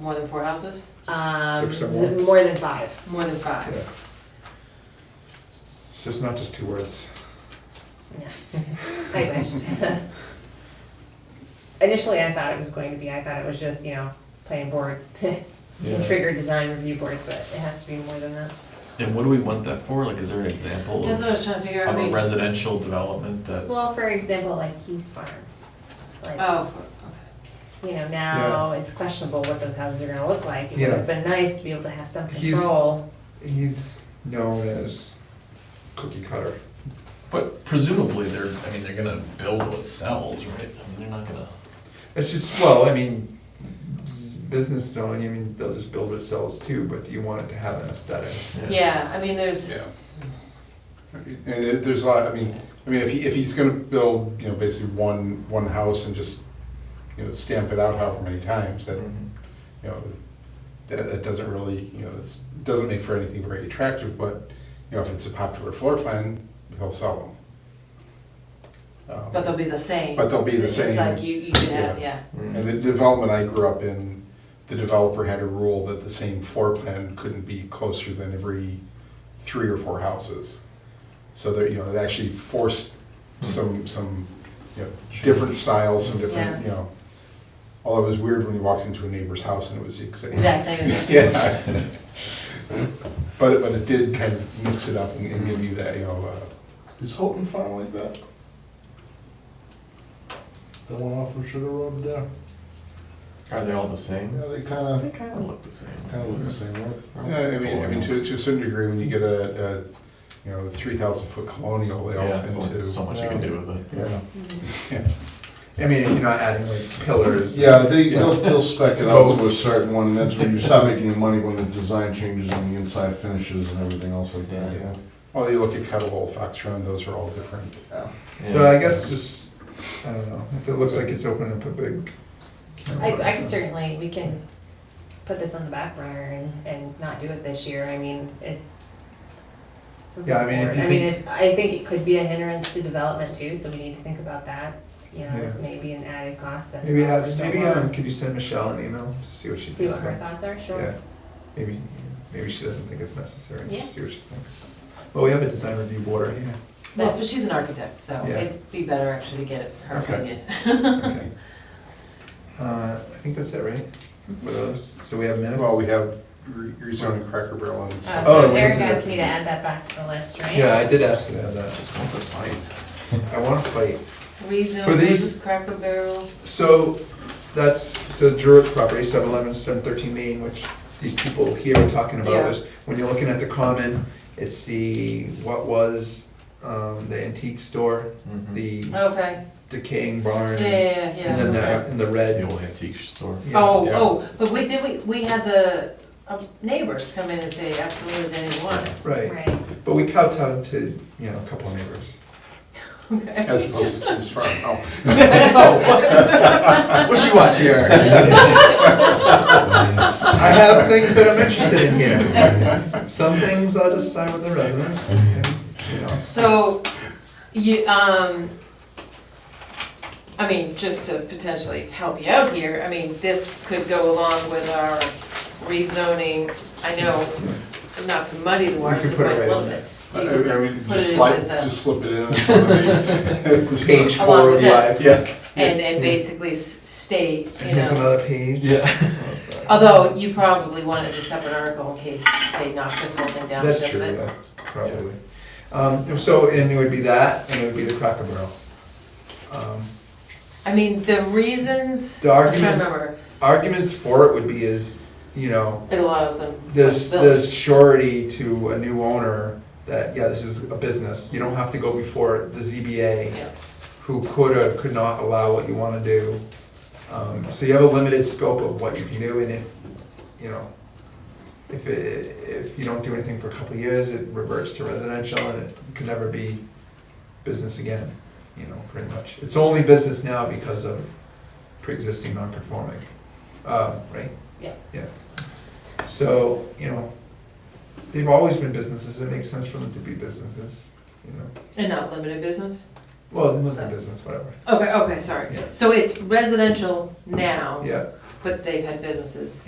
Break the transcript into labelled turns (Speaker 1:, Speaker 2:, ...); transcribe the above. Speaker 1: More than four houses?
Speaker 2: Um,
Speaker 3: Six, seven, eight.
Speaker 2: more than five.
Speaker 1: More than five?
Speaker 3: Yeah. So it's not just two words.
Speaker 2: No. I wish. Initially, I thought it was going to be, I thought it was just, you know, planning board, trigger design review boards, but it has to be more than that.
Speaker 4: And what do we want that for? Like, is there an example
Speaker 1: That's what I
Speaker 4: of
Speaker 1: was trying to figure out.
Speaker 4: of
Speaker 1: I
Speaker 4: a
Speaker 1: mean-
Speaker 4: residential development that?
Speaker 2: Well, for example, like Keys Farm. Like,
Speaker 1: Oh, for- okay.
Speaker 2: you know, now it's questionable what those houses are gonna look like. It would
Speaker 3: Yeah.
Speaker 2: have been nice to be able to have some
Speaker 3: He's-
Speaker 2: control.
Speaker 3: He's known as cookie cutter.
Speaker 4: But presumably, they're, I mean, they're gonna build what sells, right? I mean, they're not gonna,
Speaker 3: It's just, well, I mean, s- business zone, I mean, they'll just build what sells too, but you want it to have an aesthetic.
Speaker 1: yeah, I mean, there's,
Speaker 5: Yeah. And there- there's a lot, I mean, I mean, if he, if he's gonna build, you know, basically one, one house and just, you know, stamp it out however many times, that,
Speaker 4: Mhm.
Speaker 3: Mm-hmm.
Speaker 5: you know, that, that doesn't really, you know, that's, doesn't make for anything very attractive, but, you know, if it's a popular floor plan, he'll sell them. Um,
Speaker 1: but they'll be the same.
Speaker 5: But they'll be the
Speaker 1: It's
Speaker 5: same.
Speaker 1: like you, you could have, yeah.
Speaker 5: And the development I grew up in, the developer had a rule that the same floor plan couldn't be closer than every three or four houses. So that, you know, it actually forced
Speaker 6: Hmm.
Speaker 5: some, some, you know, different styles, some
Speaker 1: Yeah.
Speaker 5: different, you know. Although it was weird when you walked into a neighbor's house and it was the exact.
Speaker 1: Exact same as-
Speaker 5: Yeah. But, but it did kind of mix it up and and give you that, you know, uh,
Speaker 6: Is Houghton Farm like that? The one off of Sugar Road there?
Speaker 4: Are they all the same?
Speaker 6: Yeah, they kinda,
Speaker 4: They kinda look the same.
Speaker 6: kinda look the same, right?
Speaker 5: Yeah, I mean, I mean, to, to a certain degree, when you get a, a, you know, three thousand foot colonial, they all
Speaker 4: Yeah,
Speaker 5: tend
Speaker 4: there's only so
Speaker 5: to.
Speaker 4: much you can do with it.
Speaker 5: Yeah,
Speaker 3: I mean, if you're not adding like pillars.
Speaker 6: Yeah, they, they'll, they'll spec it out to a
Speaker 3: Votes.
Speaker 6: certain one, that's when you start making your money, when the design changes and the inside finishes and everything else like that,
Speaker 4: Yeah.
Speaker 6: yeah.
Speaker 5: well, you look at Kettle, Fox Run, those are all different.
Speaker 3: So I guess just, I don't know, if it looks like it's open up a big. can of
Speaker 2: I, I
Speaker 3: worms
Speaker 2: could
Speaker 3: and-
Speaker 2: certainly, we can put this on the back burner and, and not do it this year, I mean, it's.
Speaker 3: Yeah, I mean, if you
Speaker 2: I mean,
Speaker 3: think-
Speaker 2: it, I think it could be a hindrance to development too, so we need to think about that, you know, it's
Speaker 3: Yeah.
Speaker 2: maybe an added cost that.
Speaker 3: Maybe have,
Speaker 2: developers don't
Speaker 3: maybe
Speaker 2: want.
Speaker 3: have, could you send Michelle an email to see what she
Speaker 2: See
Speaker 3: thinks
Speaker 2: what her
Speaker 3: about? it?
Speaker 2: thoughts are, sure.
Speaker 3: Yeah, maybe, maybe she doesn't think it's necessary,
Speaker 2: Yeah.
Speaker 3: just see what she thinks. Well, we have a design review board right here.
Speaker 1: Well, but she's an architect, so
Speaker 3: Yeah.
Speaker 1: it'd be better actually to get her
Speaker 3: Okay.
Speaker 1: opinion.
Speaker 3: Okay. Uh, I think that's it, right?
Speaker 1: Mm-hmm.
Speaker 3: For those, so we have minutes?
Speaker 5: Well, we have re- rezoning Cracker Barrel and.
Speaker 2: Uh,
Speaker 3: Oh, it
Speaker 2: so
Speaker 3: was
Speaker 2: Eric
Speaker 3: in
Speaker 2: asked
Speaker 3: there.
Speaker 2: me to add that back to the list, right?
Speaker 3: Yeah, I did ask you to have that,
Speaker 4: Just wants a fight.
Speaker 3: I wanna fight.
Speaker 1: Rezone
Speaker 3: For these-
Speaker 1: versus Cracker Barrel.
Speaker 3: So, that's, so Druid property, seven eleven, seven thirteen Main, which these people here are talking about
Speaker 1: Yeah.
Speaker 3: was, when you're looking at the common, it's the, what was, um, the antique store,
Speaker 4: Mhm.
Speaker 3: the
Speaker 1: Okay,
Speaker 3: decaying
Speaker 1: Mm-hmm. yeah,
Speaker 3: barn.
Speaker 1: yeah, yeah,
Speaker 3: And then
Speaker 1: yeah.
Speaker 3: the, and the
Speaker 4: The
Speaker 3: red.
Speaker 4: old antique store.
Speaker 3: yeah.
Speaker 1: Oh,
Speaker 5: Yeah.
Speaker 1: oh, but we, did we, we had the um, neighbors come in and say absolutely they didn't want it.
Speaker 3: Right,
Speaker 2: Right,
Speaker 3: but we kowtowed to, you know, a couple of neighbors.
Speaker 1: Okay.
Speaker 5: As opposed to Keys Farm, oh,
Speaker 4: What you watch here?
Speaker 3: I have things that I'm interested in here. Some things I'll just sign with the residents, some things, you know.
Speaker 1: So, you, um, I mean, just to potentially help you out here, I mean, this could go along with our rezoning. I know, not to muddy the waters,
Speaker 3: could
Speaker 1: it
Speaker 3: put it
Speaker 1: might
Speaker 3: right
Speaker 1: look
Speaker 3: in Uh,
Speaker 1: it.
Speaker 5: I, I
Speaker 1: You
Speaker 5: mean,
Speaker 1: could put it
Speaker 5: just
Speaker 1: in
Speaker 5: slide,
Speaker 1: with the-
Speaker 5: just slip it in. until they-
Speaker 3: Page
Speaker 1: Along
Speaker 3: four
Speaker 1: with
Speaker 3: of
Speaker 1: this.
Speaker 3: five.
Speaker 5: Yeah,
Speaker 1: And, and basically s- state,
Speaker 3: And
Speaker 1: you
Speaker 3: here's
Speaker 1: know,
Speaker 3: another page.
Speaker 4: Yeah.
Speaker 1: although you probably wanted a separate article in case they knocked this whole thing down a
Speaker 3: That's
Speaker 1: little
Speaker 3: true,
Speaker 1: bit.
Speaker 3: yeah, probably. Um, so, and it would be that, and it would be the Cracker Barrel. Um,
Speaker 1: I mean, the reasons,
Speaker 3: The
Speaker 1: I'm trying to
Speaker 3: arguments-
Speaker 1: remember,
Speaker 3: Arguments for it would be is, you know,
Speaker 1: it allows them.
Speaker 3: There's,
Speaker 1: flexibility.
Speaker 3: there's surety to a new owner that, yeah, this is a business, you don't have to go before the ZBA,
Speaker 1: Yeah.
Speaker 3: who could or could not allow what you wanna do. Um, so you have a limited scope of what you can do, and if, you know, if it, if you don't do anything for a couple of years, it reverts to residential, and it can never be business again, you know, pretty much. It's only business now because of pre-existing non-conforming, um, right?
Speaker 2: Yeah.
Speaker 3: Yeah. So, you know, they've always been businesses, it makes sense for them to be businesses, you know,
Speaker 1: And not limited business?
Speaker 3: well, limited business, whatever,
Speaker 1: Okay, okay, sorry.
Speaker 3: Yeah.
Speaker 1: So it's residential now,
Speaker 3: yeah.
Speaker 1: but they've had businesses